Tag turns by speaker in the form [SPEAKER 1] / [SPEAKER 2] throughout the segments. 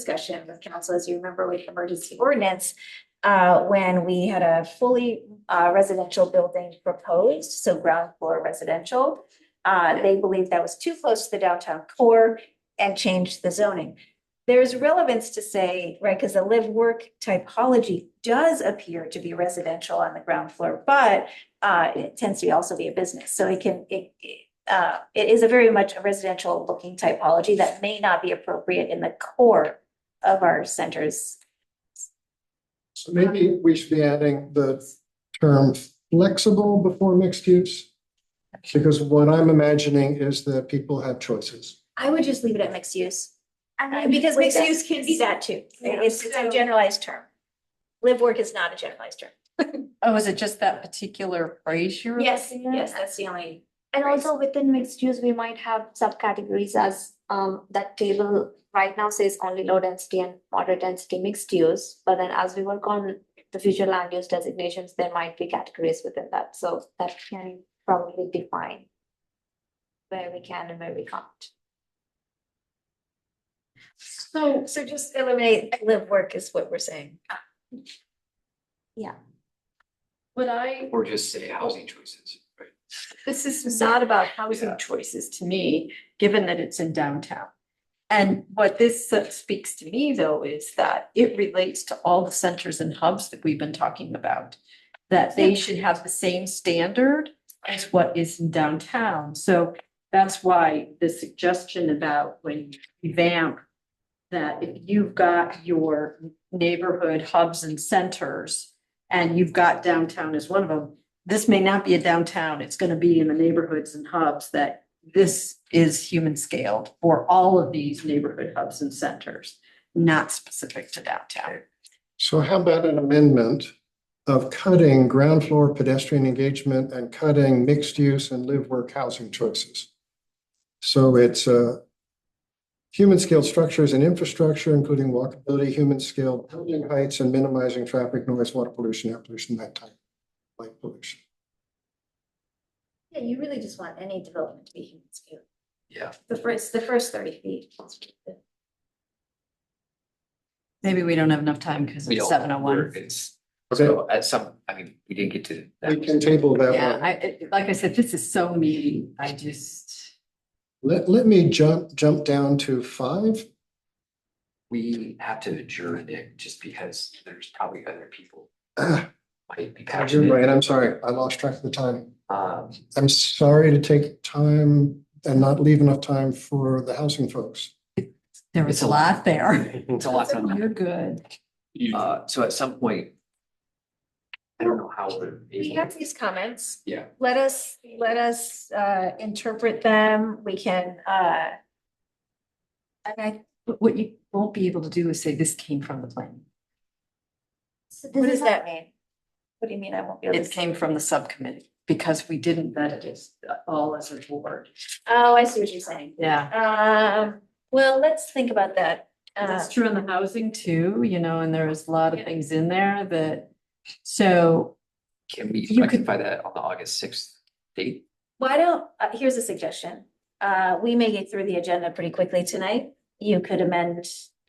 [SPEAKER 1] discussion with council, as you remember with emergency ordinance, uh, when we had a fully uh, residential building proposed, so ground floor residential. Uh, they believed that was too close to the downtown core and changed the zoning. There's relevance to say, right, because the live work typology does appear to be residential on the ground floor, but uh, it tends to be also be a business, so it can, it, it- uh, it is a very much a residential looking typology that may not be appropriate in the core of our centers.
[SPEAKER 2] So maybe we should be adding the term flexible before mixed use. Because what I'm imagining is that people have choices.
[SPEAKER 1] I would just leave it at mixed use,
[SPEAKER 3] I
[SPEAKER 1] uh,
[SPEAKER 3] mean,
[SPEAKER 1] because
[SPEAKER 3] with
[SPEAKER 1] mixed
[SPEAKER 3] that-
[SPEAKER 1] use can be that too.
[SPEAKER 3] Yeah.
[SPEAKER 1] It's, it's a
[SPEAKER 3] So-
[SPEAKER 1] generalized term. Live work is not a generalized term.
[SPEAKER 4] Oh, is it just that particular phrase you're?
[SPEAKER 1] Yes,
[SPEAKER 4] looking at?
[SPEAKER 1] yes, that's the only.
[SPEAKER 3] And also within mixed use, we might have subcategories as um that table right now says only low density and moderate density mixed use. But then as we work on the future land use designations, there might be categories within that, so that can probably define. Where we can and where we can't.
[SPEAKER 1] So, so just eliminate live work is what we're saying.
[SPEAKER 5] When I,
[SPEAKER 6] Or just say housing choices, right?
[SPEAKER 5] this is not about housing choices to me, given that it's in downtown. And what this speaks to me though is that it relates to all the centers and hubs that we've been talking about. That they should have the same standard as what is in downtown. So that's why the suggestion about when you vamp. That if you've got your neighborhood hubs and centers and you've got downtown as one of them this may not be a downtown, it's gonna be in the neighborhoods and hubs that this is human scaled for all of these neighborhood hubs and centers, not specific to downtown.
[SPEAKER 2] So how about an amendment of cutting ground floor pedestrian engagement and cutting mixed use and live work housing choices? So it's uh human scaled structures and infrastructure, including walkability, human scaled building heights and minimizing traffic noise, water pollution, air pollution, that type. Light pollution.
[SPEAKER 1] Yeah, you really just want any development to be human scale.
[SPEAKER 6] Yeah.
[SPEAKER 1] The first, the first thirty feet.
[SPEAKER 4] Maybe we don't have enough time because
[SPEAKER 6] We
[SPEAKER 4] it's
[SPEAKER 6] don't-
[SPEAKER 4] seven oh
[SPEAKER 6] we're-
[SPEAKER 4] one.
[SPEAKER 6] It's,
[SPEAKER 2] Okay.
[SPEAKER 6] so at some, I mean, we didn't get to. that.
[SPEAKER 2] We can table that
[SPEAKER 4] Yeah,
[SPEAKER 2] one.
[SPEAKER 4] I, it- like I said, this is so meaty. I just,
[SPEAKER 2] Let, let me jump, jump down to five.
[SPEAKER 6] We have to adjourn it just because there's probably other people
[SPEAKER 2] Ah,
[SPEAKER 6] might be
[SPEAKER 2] You're right,
[SPEAKER 6] passionate.
[SPEAKER 2] I'm sorry. I lost track of the time.
[SPEAKER 6] Um,
[SPEAKER 2] I'm sorry to take time and not leave enough time for the housing folks.
[SPEAKER 4] there
[SPEAKER 6] It's
[SPEAKER 4] was a
[SPEAKER 6] a lot.
[SPEAKER 4] lot there.
[SPEAKER 6] it's a lot. going on.
[SPEAKER 4] You're good.
[SPEAKER 6] Uh, so at some point, I don't know how we're.
[SPEAKER 1] We
[SPEAKER 6] able-
[SPEAKER 1] have these comments.
[SPEAKER 6] Yeah.
[SPEAKER 1] Let us, let us uh interpret them. We can uh. And I,
[SPEAKER 4] But what you won't be able to do is say this came from the plan.
[SPEAKER 3] So
[SPEAKER 1] what
[SPEAKER 3] this
[SPEAKER 1] does
[SPEAKER 3] is
[SPEAKER 1] that mean? What do you mean I won't be able
[SPEAKER 4] It
[SPEAKER 1] to?
[SPEAKER 4] came from the subcommittee because we didn't vet it as all as a board.
[SPEAKER 1] Oh, I see what you're saying.
[SPEAKER 4] Yeah.
[SPEAKER 1] Um, well, let's think about that. Uh,
[SPEAKER 4] That's true in the housing too, you know, and there was a lot of things in there that, so
[SPEAKER 6] Can we
[SPEAKER 4] You could-
[SPEAKER 6] rectify that on the August sixth date?
[SPEAKER 1] why don't, uh, here's a suggestion. Uh, we may get through the agenda pretty quickly tonight. You could amend,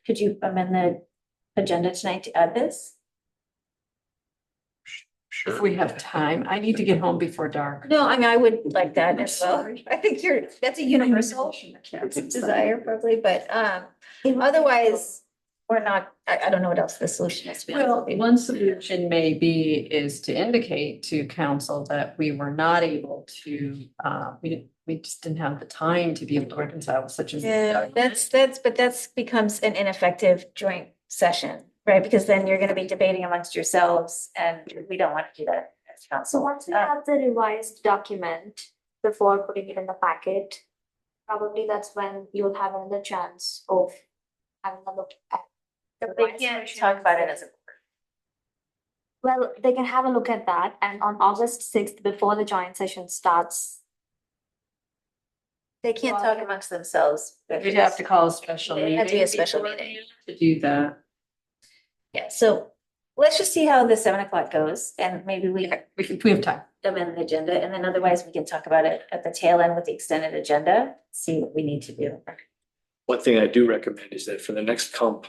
[SPEAKER 1] could you amend the agenda tonight to add this?
[SPEAKER 4] If we have time, I need to get home before dark.
[SPEAKER 1] No, I mean, I would like that
[SPEAKER 4] I'm
[SPEAKER 1] as well.
[SPEAKER 4] sorry.
[SPEAKER 1] I think you're, that's a universal desire probably, but um, otherwise, we're not, I, I don't know what else the solution is. to be honest
[SPEAKER 4] Well,
[SPEAKER 1] with you.
[SPEAKER 4] one solution may be is to indicate to council that we were not able to, uh, we didn't, we just didn't have the time to be able to reconcile with such a.
[SPEAKER 1] Yeah, that's, that's, but that's becomes an ineffective joint session, right? Because then you're gonna be debating amongst yourselves and we don't want to do that as
[SPEAKER 3] So
[SPEAKER 1] council.
[SPEAKER 3] once we
[SPEAKER 1] Uh,
[SPEAKER 3] have the revised document before putting it in the packet, probably that's when you'll have another chance of having a look at.
[SPEAKER 1] But they
[SPEAKER 3] revised
[SPEAKER 1] can't
[SPEAKER 3] version
[SPEAKER 1] talk
[SPEAKER 3] and
[SPEAKER 1] about
[SPEAKER 3] say-
[SPEAKER 1] it as a.
[SPEAKER 3] Well, they can have a look at that and on August sixth, before the joint session starts.
[SPEAKER 1] They can't talk amongst themselves. but
[SPEAKER 4] We'd have to call a special
[SPEAKER 1] It'd
[SPEAKER 4] meeting.
[SPEAKER 1] have to be a special
[SPEAKER 4] before
[SPEAKER 1] meeting.
[SPEAKER 4] To do that.
[SPEAKER 1] Yeah, so let's just see how the seven o'clock goes and maybe we
[SPEAKER 4] Okay, we can- we have time.
[SPEAKER 1] amend the agenda and then otherwise we can talk about it at the tail end with the extended agenda, see what we need to do.
[SPEAKER 7] One thing I do recommend is that for the next comp